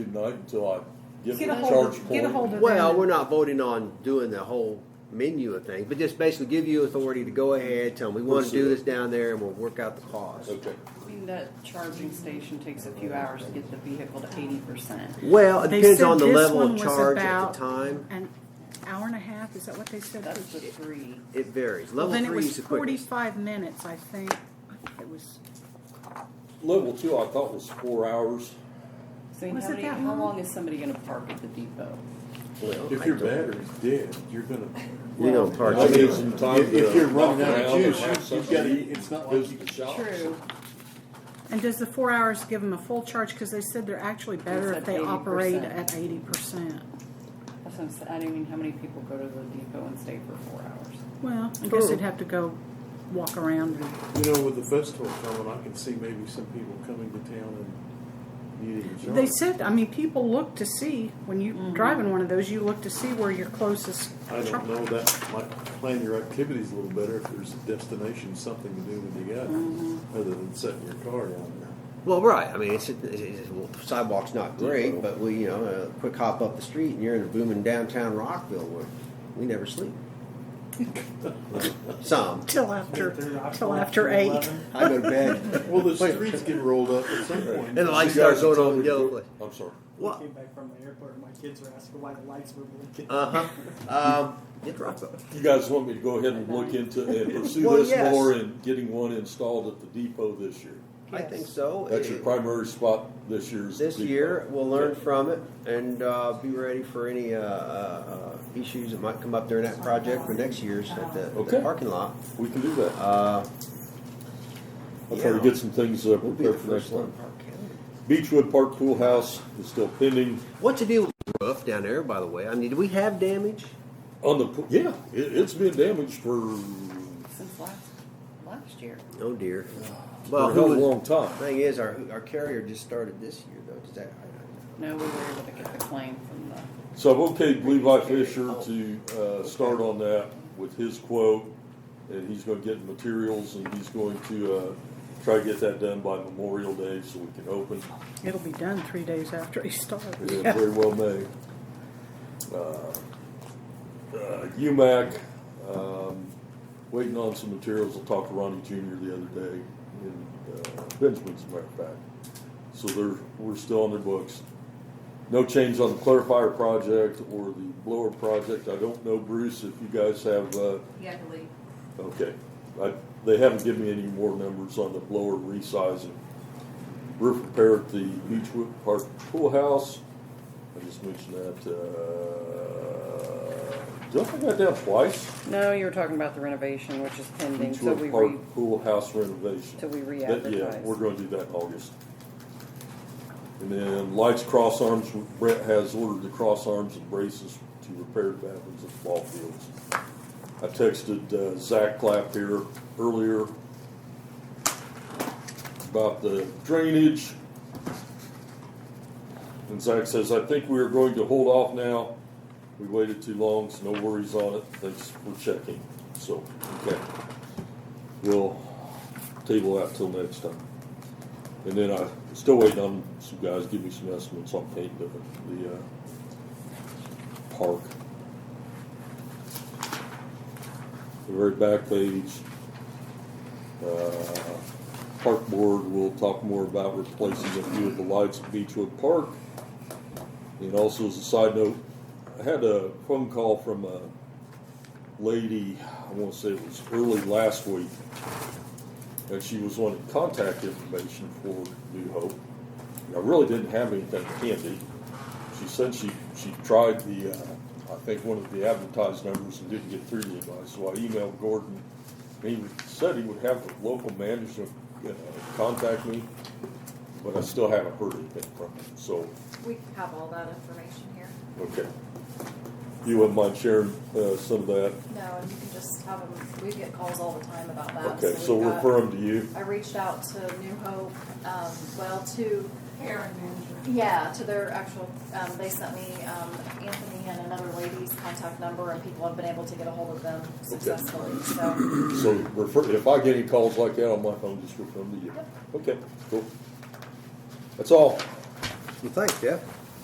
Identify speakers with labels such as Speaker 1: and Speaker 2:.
Speaker 1: tonight until I get
Speaker 2: Get a
Speaker 1: the
Speaker 2: hold
Speaker 1: charge
Speaker 2: of, get a
Speaker 1: point.
Speaker 2: hold of.
Speaker 3: Well,
Speaker 2: them.
Speaker 3: we're not voting on doing the whole menu of things, but just basically give you authority to go ahead, tell them we want to do this down there and we'll work out the cost.
Speaker 1: Okay.
Speaker 4: I mean, that charging station takes a few hours to get the vehicle to eighty percent.
Speaker 3: Well, it
Speaker 5: They
Speaker 3: depends
Speaker 5: said
Speaker 3: on the
Speaker 5: this
Speaker 3: level
Speaker 5: one
Speaker 3: of
Speaker 5: was
Speaker 3: charge at
Speaker 5: about-
Speaker 3: the time.
Speaker 5: An hour and a half, is that what they said?
Speaker 4: That's the three.
Speaker 3: It varies.
Speaker 5: Well,
Speaker 3: Level
Speaker 5: then it
Speaker 3: three
Speaker 5: was
Speaker 3: is the quickest.
Speaker 5: forty-five minutes, I think. I think It was,
Speaker 1: Level two, I thought was four hours.
Speaker 4: So how
Speaker 5: Was it
Speaker 4: many,
Speaker 5: that
Speaker 4: how
Speaker 5: long?
Speaker 4: long is somebody gonna park at the depot?
Speaker 3: Well,
Speaker 6: If
Speaker 3: I
Speaker 6: your
Speaker 3: don't-
Speaker 6: battery's dead, you're gonna.
Speaker 3: You don't park.
Speaker 1: I need
Speaker 3: anywhere.
Speaker 1: some time
Speaker 6: If, if
Speaker 1: to
Speaker 6: you're running
Speaker 1: walk
Speaker 6: out of
Speaker 1: around
Speaker 6: juice,
Speaker 1: and
Speaker 6: you've
Speaker 1: something.
Speaker 6: gotta, eat. it's not like you
Speaker 1: Visit
Speaker 6: can.
Speaker 1: the shops.
Speaker 5: and does the four hours give them a full charge? Because they said they're actually better
Speaker 4: said
Speaker 5: if they operate
Speaker 4: 80%.
Speaker 5: at eighty percent.
Speaker 4: That's what I'm saying, I don't mean, how many people go to the depot and stay for four hours?
Speaker 5: Well, I guess
Speaker 3: True.
Speaker 5: they'd have to go walk around and
Speaker 6: You know, with the festival coming, I can see maybe some people coming to town and needing a
Speaker 5: They
Speaker 6: charge.
Speaker 5: said, I mean, people look to see when you drive in one of those. You look to see where your closest.
Speaker 6: I
Speaker 5: truck-
Speaker 6: don't know, that might plan your activities a little better if there's a destination, something to do when you got, it, other than setting your car down there.
Speaker 3: Well, right. I mean, it's, it's, it's well, the sidewalk's not great, but we, you know, a quick hop up the street and you're in a booming downtown Rockville where we never sleep. Some.
Speaker 5: Till after, till after eight.
Speaker 3: I go to bed
Speaker 6: Well, the streets get rolled up at some point.
Speaker 3: and the
Speaker 1: You
Speaker 3: lights
Speaker 1: guys
Speaker 3: start going
Speaker 1: are
Speaker 3: on yellow.
Speaker 1: I'm sorry.
Speaker 7: I
Speaker 3: What?
Speaker 7: came back from the airport and my kids were asking why the lights were blinking.
Speaker 3: Uh huh. Um, it's Rockville.
Speaker 1: You guys want me to go ahead and look into and pursue
Speaker 3: Well,
Speaker 1: this
Speaker 3: yes.
Speaker 1: more and getting one installed at the depot this year?
Speaker 3: I think so.
Speaker 1: That's your
Speaker 3: It-
Speaker 1: primary spot this year's.
Speaker 3: This
Speaker 1: depot.
Speaker 3: year, we'll learn
Speaker 1: Okay.
Speaker 3: from it and uh, be ready for any uh, uh, issues that might come up during that project for next year's at the, the
Speaker 1: Okay.
Speaker 3: parking lot.
Speaker 1: We can do that.
Speaker 3: Uh,
Speaker 1: I'll try to
Speaker 3: yeah.
Speaker 1: get some things uh,
Speaker 3: we'll be the
Speaker 1: prepared for next
Speaker 3: first
Speaker 1: time.
Speaker 3: one. in Park County.
Speaker 1: Beechwood Park Pool House is still pending.
Speaker 3: What's the deal with the roof down there, by the way? I mean, do we have damage?
Speaker 1: On the, pool- yeah, it, it's been damaged for,
Speaker 4: Since last, last year.
Speaker 3: Oh dear.
Speaker 1: for
Speaker 3: Well,
Speaker 1: a
Speaker 3: who
Speaker 1: hell of
Speaker 3: was,
Speaker 1: a long time.
Speaker 3: thing is, our our carrier just started this year though. Does that? I,
Speaker 4: No, we were able to get the claim from the,
Speaker 1: So I've okayed Levi Fisher to uh, start on that with his quote, and he's going to get materials and he's going to uh, try to get that done by Memorial Day so we can open.
Speaker 5: It'll be done three days after he starts.
Speaker 1: It is very well made. Uh, uh, UMAC, um, waiting on some materials. I talked to Ronnie Jr. the other day in uh, Benjamin, as a matter of fact. So they're, we're still on their books. No change on the clarifier project or the blower project. I don't know, Bruce, if you guys have, uh,
Speaker 8: Yeah, I believe.
Speaker 1: okay. I, they haven't given me any more numbers on the blower resizing. Roof repair at the Beechwood Park Pool House. I just mentioned that, uh, don't think I got that twice.
Speaker 4: no, you were talking about the renovation, which is pending, so we
Speaker 1: Beechwood
Speaker 4: re,
Speaker 1: Park Pool House renovation.
Speaker 4: till we
Speaker 1: That- Yeah,
Speaker 4: re-advertise.
Speaker 1: we're gonna do that in August. And then lights, cross arms, Brett has ordered the cross arms and braces to repair bathrooms at ball fields. I texted uh, Zach Clapp here earlier about the drainage. And Zach says, I think we are going to hold off now. We waited too long, so no worries on it. Thanks for checking. So, okay. We'll table that till next time. And then I, still waiting on some guys, give me some estimates on painting the, the, uh, park. The very back page. Uh, Park board will talk more about replacing a few of the lights at Beechwood Park. And also as a side note, I had a phone call from a lady, I wanna say it was early last week. And she was wanting contact information for New Hope. And I really didn't have anything handy. She said she, she tried the, uh, I think one of the advertised numbers and didn't get through to anybody, so I emailed Gordon. He said he would have the local manager, uh, contact me, but I still haven't heard anything from him, so,
Speaker 8: We have all that information here.
Speaker 1: okay. You wouldn't mind sharing, uh, some of that?
Speaker 8: No, and you can just have them, we get calls all the time about that.
Speaker 1: Okay, so
Speaker 8: Uh, we've
Speaker 1: we'll
Speaker 8: got-
Speaker 1: refer him to you.
Speaker 8: I reached out to New Hope, um, well, to,
Speaker 9: Aaron Manager.
Speaker 8: yeah, to their actual, um, they sent me, um, Anthony and another lady's contact number and people have been able to get a hold of them successfully, so.
Speaker 1: So refer, if I get any calls like that on my phone, just refer them to you. Okay, cool. That's all.
Speaker 3: well, thanks, Jeff.